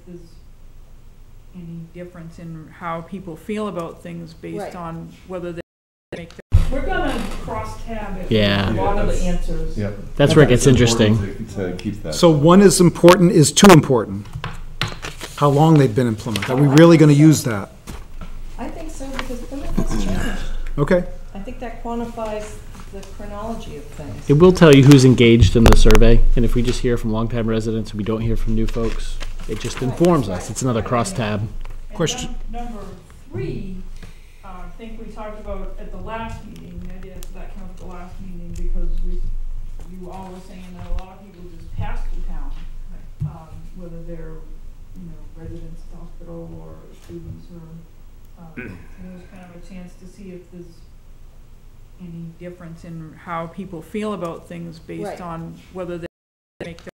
is any difference in how people feel about things Right. based on whether they make. that- We're gonna cross tab it. with Yeah. A lot of the Yeah, answers. yeah. That's where it gets interesting. Important To to keep that. So one is important, is too important. How long they've been implemented. Are we really going to use that? I think so, because Plymouth has changed. Okay, I think that quantifies the chronology of things. It will tell you who's engaged in the survey, and if we just hear from longtime residents and we don't hear from new folks, it just informs us. It's another cross tab. And Question- num- Number three, uh, I think we talked about at the last meeting, maybe that's, that came up at the last meeting, because we, you all were saying that a lot of people just pass through town. Um, whether they're, you know, residents at the hospital or students or, um, it was kind of a chance to see if there's any difference in how people feel about things Right. based on whether they make that